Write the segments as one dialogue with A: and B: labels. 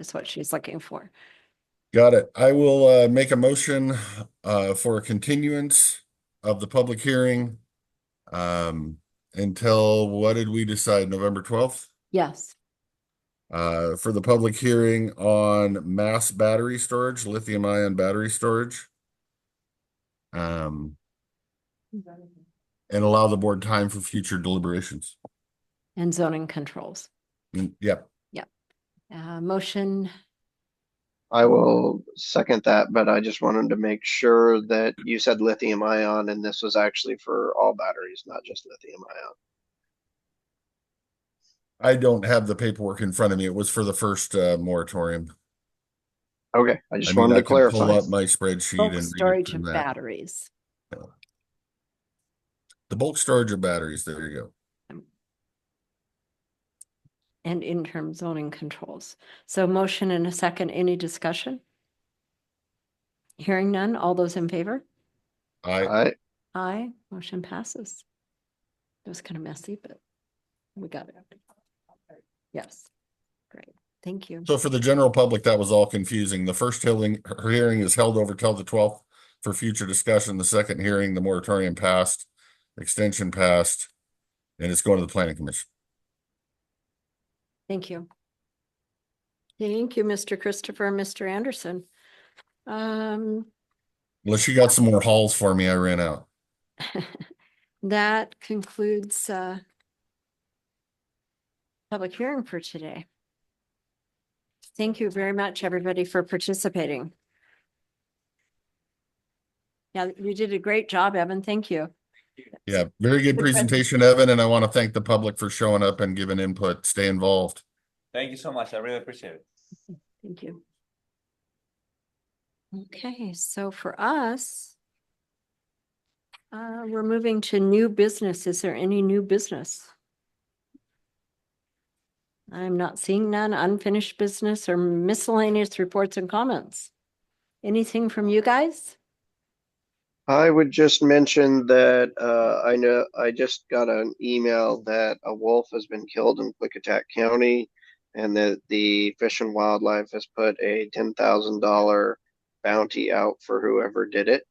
A: is what she's looking for.
B: Got it. I will uh make a motion uh for a continuance of the public hearing. Um, until what did we decide? November twelfth?
A: Yes,
B: Uh, for the public hearing on mass battery storage, lithium ion battery storage. Um. And allow the board time for future deliberations.
A: and zoning controls.
B: Mm, Yep,
A: Uh, motion,
C: I will second that, but I just wanted to make sure that you said lithium ion and this was actually for all batteries, not just lithium ion.
B: I don't have the paperwork in front of me. It was for the first uh moratorium.
C: Okay, I
B: I
C: just
B: mean,
C: wanted
B: I
C: to
B: can pull
C: clarify.
B: up My spreadsheet
A: bulk
B: and. read it
A: storage
B: from
A: of
B: that.
A: batteries.
B: The bulk storage of batteries, there you go.
A: Um, and interim zoning controls. So motion and a second, any discussion? Hearing none, all those in favor?
B: I,
C: I,
A: Aye, motion passes. It was kind of messy, but we got it. Yes, great, thank you.
B: so for the general public, that was all confusing. The first hearing, her hearing is held over till the twelfth for future discussion. The second hearing, the moratorium passed, extension passed, and it's going to the planning commission.
A: Thank you. Thank you, Mr. Christopher, and Mr. Anderson. Um,
B: Unless you got some more halls for me, I ran out.
A: that concludes uh public hearing for today. Thank you very much, everybody, for participating. Yeah, you did a great job, Evan. Thank you.
B: Yeah, very good
A: Good question.
B: presentation, Evan, and I want to thank the public for showing up and giving input. Stay involved.
D: Thank you so much. I really appreciate it.
A: Thank you. Okay, so for us, uh, we're moving to new business. Is there any new business? I'm not seeing none unfinished business or miscellaneous reports and comments. Anything from you guys?
C: I would just mention that, uh, I know, I just got an email that a wolf has been killed in Clickitat County. And that the Fish and Wildlife has put a ten thousand dollar bounty out for whoever did it.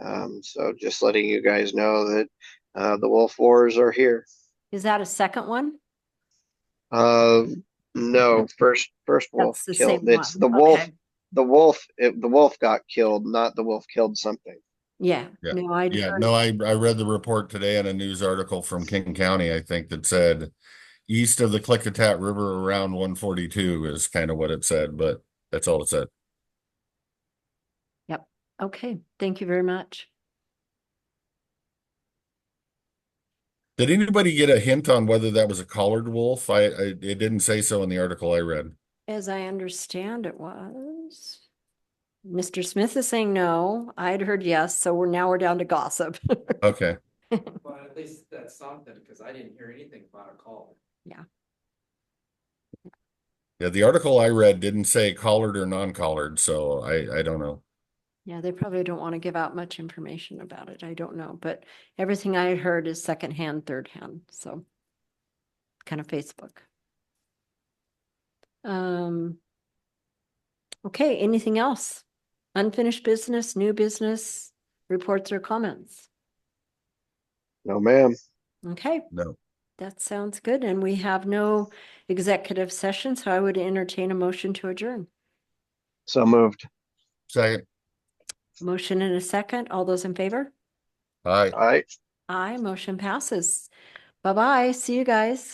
C: Um, so just letting you guys know that, uh, the wolf wars are here.
A: Is that a second one?
C: Uh, no, first, first wolf
A: That's the same
C: killed. It's
A: one.
C: the wolf,
A: Okay.
C: the wolf, it, the wolf got killed, not the wolf killed something.
A: Yeah,
B: Yeah,
A: no, I,
B: Yeah,
A: don't-
B: no, I, I read the report today in a news article from King County, I think, that said east of the Clickitat River around one forty-two is kind of what it said, but that's all it said.
A: okay, thank you very much.
B: Did anybody get a hint on whether that was a collared wolf? I, I, it didn't say so in the article I read.
A: As I understand it was. Mr. Smith is saying no. I had heard yes, so we're now we're down to gossip.
B: Okay,
E: Well, at least that's something, because I didn't hear anything about a call.
B: yeah, the article I read didn't say collared or non-collared, so I, I don't know.
A: Yeah, they probably don't want to give out much information about it. I don't know, but everything I had heard is secondhand, thirdhand, so. Kind of Facebook. Um. Okay, anything else? Unfinished business, new business, reports or comments?
C: No, ma'am.
A: Okay.
B: No.
A: That sounds good. And we have no executive session, so I would entertain a motion to adjourn.
C: So moved.
B: Second,
A: Motion and a second. All those in favor?
B: all right.
C: All right.
A: Aye, motion passes. Bye-bye. See you guys.